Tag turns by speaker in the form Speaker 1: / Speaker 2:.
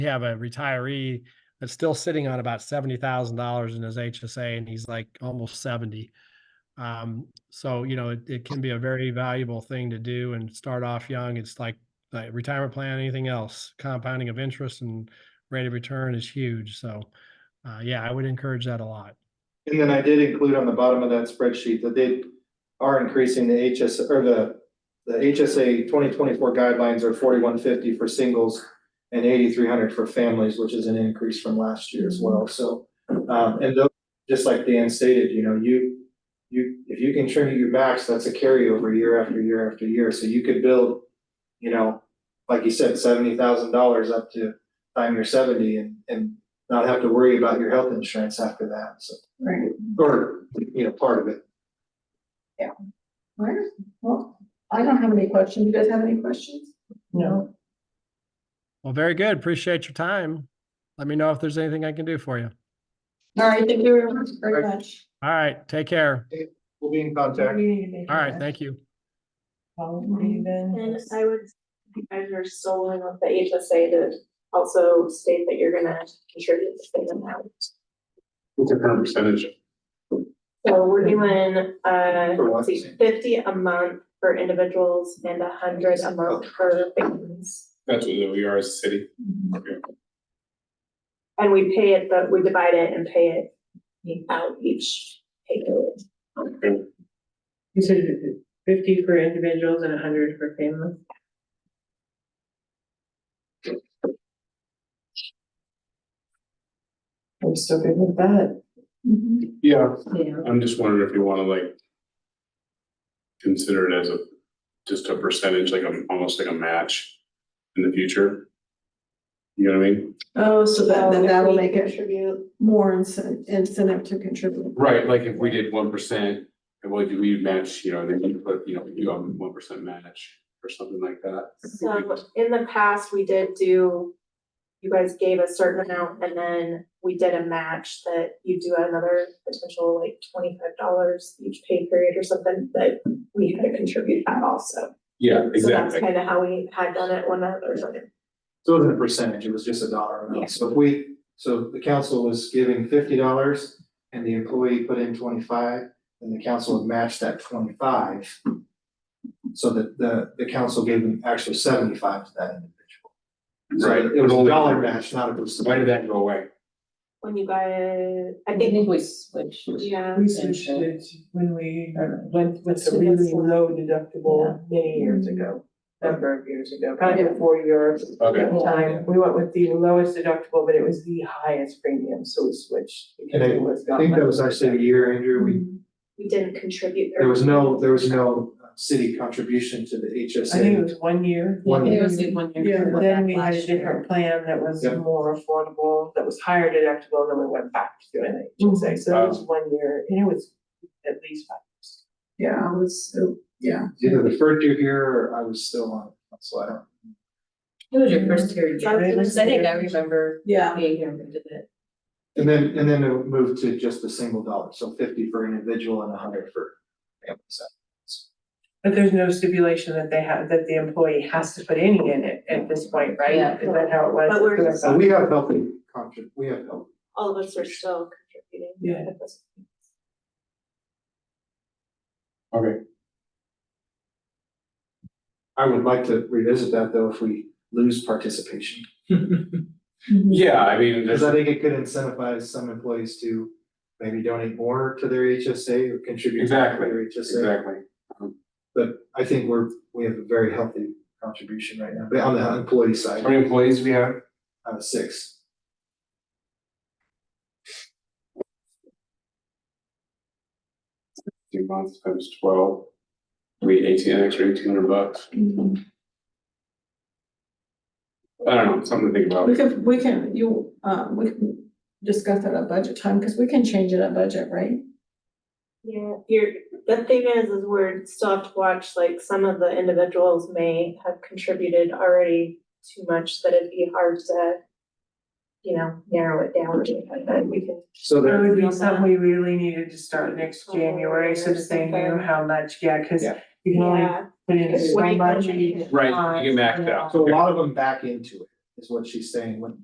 Speaker 1: have a retiree that's still sitting on about seventy thousand dollars in his HSA and he's like almost seventy. Um, so, you know, it, it can be a very valuable thing to do and start off young. It's like, like retirement plan, anything else, compounding of interest and rate of return is huge. So, uh, yeah, I would encourage that a lot.
Speaker 2: And then I did include on the bottom of that spreadsheet that they are increasing the HS, or the, the HSA twenty twenty-four guidelines are forty-one fifty for singles and eighty-three hundred for families, which is an increase from last year as well, so. Um, and those, just like Dan stated, you know, you, you, if you can trim your max, that's a carryover year after year after year, so you could build, you know, like you said, seventy thousand dollars up to time you're seventy and, and not have to worry about your health insurance after that, so.
Speaker 3: Right,
Speaker 2: Or, you know, part of it.
Speaker 3: Alright. well, I don't have any questions, you guys have any questions? No.
Speaker 1: Well, very good. Appreciate your time. Let me know if there's anything I can do for you.
Speaker 3: All right, thank you very much, very much.
Speaker 1: All right, take care.
Speaker 2: We'll be in contact.
Speaker 1: All right, thank you.
Speaker 4: And I would, you guys are still in with the HSA to also state that you're gonna contribute the same amount.
Speaker 2: What's the current percentage?
Speaker 4: So we're doing, uh,
Speaker 2: For what?
Speaker 4: let's see, fifty a month for individuals and a hundred a month for families.
Speaker 5: That's what we are as a city.
Speaker 4: And we pay it, but we divide it and pay it out each pay period.
Speaker 6: You said fifty for individuals and hundred for families?
Speaker 3: I'm still good with that.
Speaker 5: Yeah,
Speaker 6: Yeah.
Speaker 5: I'm just wondering if you wanna like. Consider it as a, just a percentage, like a, almost like a match in the future. You know what I mean?
Speaker 3: Oh, so that, then
Speaker 4: if
Speaker 3: that'll
Speaker 4: we
Speaker 3: make it
Speaker 4: Contribute,
Speaker 3: more incen- incentive to contribute.
Speaker 5: Right, like if we did one percent, and what do we match, you know, then you put, you know, you go one percent match or something like that.
Speaker 4: so in the past, we did do, you guys gave a certain amount and then we did a match that you do another potential like twenty-five dollars each pay period or something, but we had to contribute that also.
Speaker 5: Yeah,
Speaker 4: So that's
Speaker 5: exactly.
Speaker 4: kind of how we had done it one other time.
Speaker 2: So it wasn't a percentage, it was just a dollar
Speaker 4: Yeah.
Speaker 2: amount. So if we, so the council was giving fifty dollars and the employee put in twenty-five, and the council would match that twenty-five. So that the, the council gave them actually seventy-five to that individual. So
Speaker 5: Right.
Speaker 2: It was a dollar match, not a percentage.
Speaker 5: Why did that go away?
Speaker 4: When you guys, I
Speaker 7: I
Speaker 4: think,
Speaker 7: think we switched.
Speaker 4: yeah,
Speaker 8: We switched it when we
Speaker 7: Or-
Speaker 8: went with the
Speaker 6: So that's
Speaker 8: really
Speaker 6: the-
Speaker 8: low deductible many years
Speaker 7: Mm-hmm.
Speaker 8: ago, number of years ago, probably before your
Speaker 5: Okay.
Speaker 8: time. We went with the lowest deductible, but it was the highest premium, so we switched because
Speaker 2: And
Speaker 8: it was.
Speaker 2: I think that was actually a year, Andrew, we,
Speaker 4: we didn't contribute.
Speaker 2: there was no, there was no uh, city contribution to the HSA.
Speaker 8: I think it was one year.
Speaker 2: One
Speaker 7: It
Speaker 2: year.
Speaker 7: was the one year.
Speaker 8: Yeah,
Speaker 7: before
Speaker 8: then
Speaker 7: that
Speaker 8: we had a
Speaker 7: last year.
Speaker 8: different plan that was
Speaker 2: Yeah.
Speaker 8: more affordable, that was higher deductible, then we went back to doing it,
Speaker 7: Mm-hmm.
Speaker 8: you say, so it was one year, and it was at least five. years.
Speaker 3: Yeah, I was, oh, yeah.
Speaker 2: either the first year here or I was still on, so I don't.
Speaker 7: It was your first year, yeah.
Speaker 8: It
Speaker 7: I
Speaker 8: was-
Speaker 7: think I remember
Speaker 3: Yeah.
Speaker 7: being here when we did it.
Speaker 2: And then, and then it moved to just a single dollar, so fifty for individual and a hundred for family. So
Speaker 8: But there's no stipulation that they have, that the employee has to put any in it at this point, right?
Speaker 7: Yeah.
Speaker 8: Is that how it was?
Speaker 4: But we're-
Speaker 2: So we have healthy contra, we have healthy.
Speaker 4: All of us are still contributing.
Speaker 8: Yeah.
Speaker 5: Okay.
Speaker 2: I would like to revisit that though, if we lose participation.
Speaker 5: Yeah, I mean, there's,
Speaker 2: Because I think it could incentivize some employees to maybe donate more to their HSA or contribute more to
Speaker 5: Exactly,
Speaker 2: their HSA.
Speaker 5: exactly.
Speaker 2: But I think we're, we have a very healthy contribution right now, but on the employee
Speaker 5: How
Speaker 2: side,
Speaker 5: many employees we have?
Speaker 2: uh, six.
Speaker 5: Two months times twelve. We eighteen, an extra eighteen hundred bucks.
Speaker 3: Mm-hmm.
Speaker 5: I don't know, something to think about.
Speaker 3: We can, we can, you, um, we can discuss that at budget time, because we can change it at budget, right?
Speaker 4: Yeah, you're, the thing is, is we're still have to watch, like, some of the individuals may have contributed already too much that it'd be hard to. You know, narrow it down, to, but we can,
Speaker 2: So
Speaker 8: That
Speaker 2: there,
Speaker 8: would be something we really needed to start next January, so that they knew how much, yeah, cause
Speaker 2: Yeah.
Speaker 8: you can only
Speaker 4: yeah,
Speaker 8: put in
Speaker 4: it's
Speaker 8: so
Speaker 4: way
Speaker 8: much.
Speaker 4: complicated.
Speaker 5: Right, you get maxed out.
Speaker 2: so a lot of them back into it, is what she's saying, when